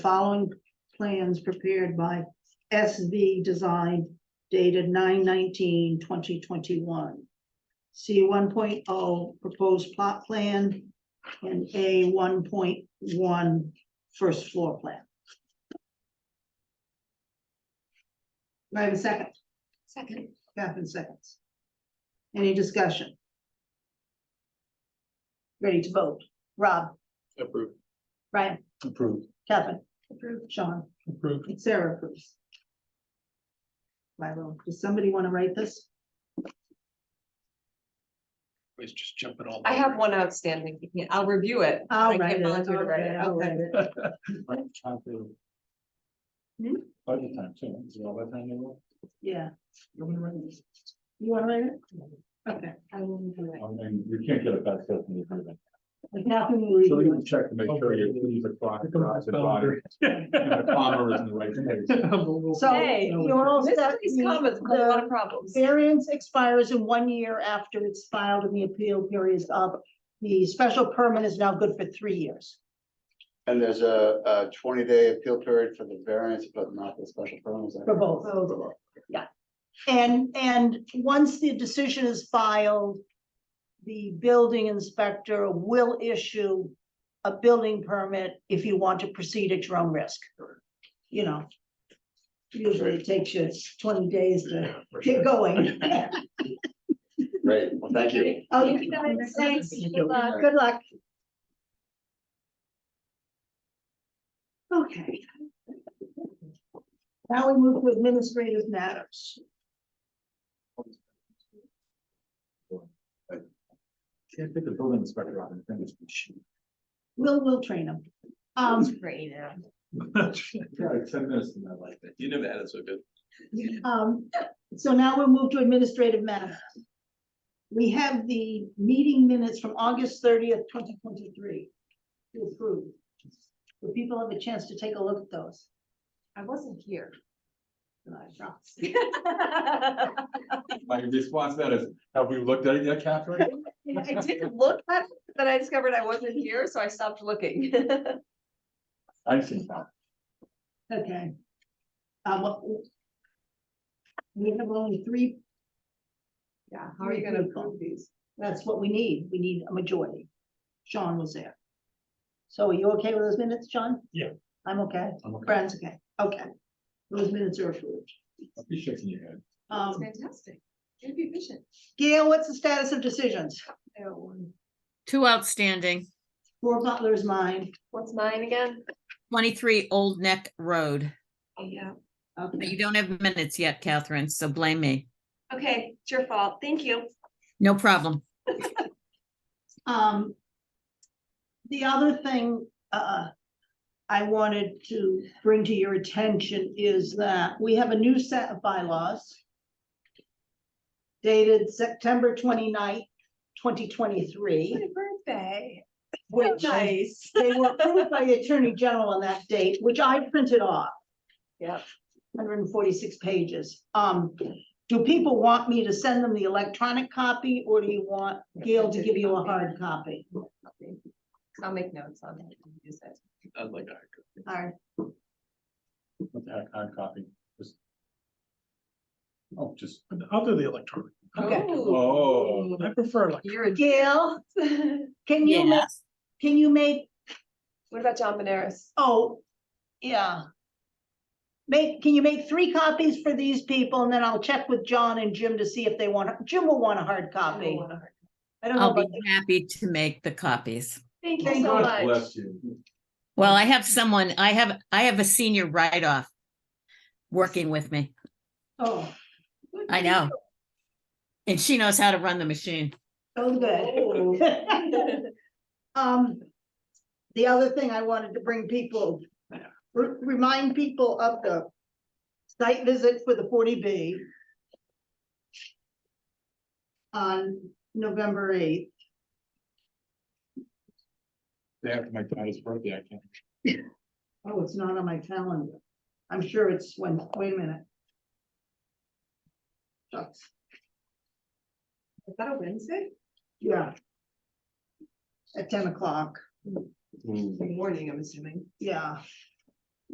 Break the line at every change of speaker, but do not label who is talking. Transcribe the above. following plans prepared by SV Design dated 2021. C one oh, proposed plot plan and A 1.1 first floor plan. Do I have a second?
Second.
Catherine seconds. Any discussion? Ready to vote? Rob,
Approved.
Brian,
Approved.
Catherine. Approved. Sean.
Approved.
Sarah approves. Milo, does somebody want to write this?
Please just jump it all.
I have one outstanding. Yeah, I'll review it. but I
I'll
can't
write it.
volunteer to
I'll
write it.
I'll
Okay.
write it.
By
Hmm?
the time, too. Is it all by the time you will?
Yeah,
You wanna run this?
you want to write it? Okay,
I will review it.
I mean, you can't get it back to the agreement.
like nothing we
So you
do.
can check to make sure you leave the clock. across the bottom. And the comma is in the right place.
So,
Hey,
you all
This-
set?
These comments cause a lot of problems.
Variance expires in one year after it's filed and the appeal period is up. The special permit is now good for three years.
And there's a, a twenty day appeal period for the variance, but not the special permit. is that
For both.
correct? For both.
And, and once the decision is filed, the building inspector will issue a building permit if you want to proceed at your own risk. You know. Usually it takes you twenty days to
Yeah, for
get
sure.
going.
Great, well, thank you.
Oh,
Thank you, guys.
thanks.
Thank you. Good luck.
Good luck. Okay. Now we move to administrative matters.
Can't pick the building inspector out and think it's.
We'll, we'll train them. Um,
Creative.
Yeah, like ten minutes and I like that. You never had it so good.
Um, so now we'll move to administrative matters. We have the meeting minutes from August thirtieth, twenty twenty-three. To approve. Do people have a chance to take a look at those?
I wasn't here.
My response to that is, have we looked at it yet, Catherine?
I didn't look at it, but I discovered I wasn't here, so I stopped looking.
I've seen that.
Okay. Um, what- we have only three,
Yeah, how are you gonna approve these?
that's what we need. We need a majority. Sean was there. So are you okay with those minutes, Sean?
Yeah.
I'm okay.
I'm okay.
Brian's okay. Okay. Those minutes are approved.
I'll be shaking your head.
That's
Um,
fantastic. You'd be efficient.
Gail, what's the status of decisions?
Oh,
Two outstanding,
Four Butler's mine.
What's mine again?
twenty-three Old Neck Road.
Oh, yeah.
But
Okay,
you don't have minutes yet, Catherine, so blame me.
Okay, it's your fault. Thank you.
No problem.
um. The other thing, uh, I wanted to bring to your attention is that we have a new set of bylaws. Dated September 29th, twenty-twenty-three,
Happy birthday.
which they
Nice.
were approved by the Attorney General on that date, which I printed off.
Yep.
hundred and forty-six pages. Um, do people want me to send them the electronic copy, or do you want Gail to give you a hard copy?
I'll make notes on it. and use it.
I'd like a hard copy.
Alright,
What's a hard- hard copy? Just- Oh, just.
I'll do the electronic.
Okay.
Oh.
I prefer electronic.
You're a.
Gail, can you, ma-
Yes.
can you make,
What about John Benares?
oh, yeah. Make, can you make three copies for these people, and then I'll check with John and Jim to see if they want, Jim will want a hard copy. I don't know,
I'll be
about
happy to make the copies.
Thank you
Thank
so
you.
God
much.
Bless you.
Well, I have someone, I have, I have a senior write-off working with me.
oh,
I know. And she knows how to run the machine.
so good. Um, the other thing I wanted to bring people, re- remind people of the site visit for the forty B on November eighth.
Day after my daughter's birthday, I can't.
Oh, it's not on my calendar. I'm sure it's when, wait a minute. Shucks.
Is that a Wednesday?
Yeah. At ten o'clock,
Good morning, I'm assuming.
yeah.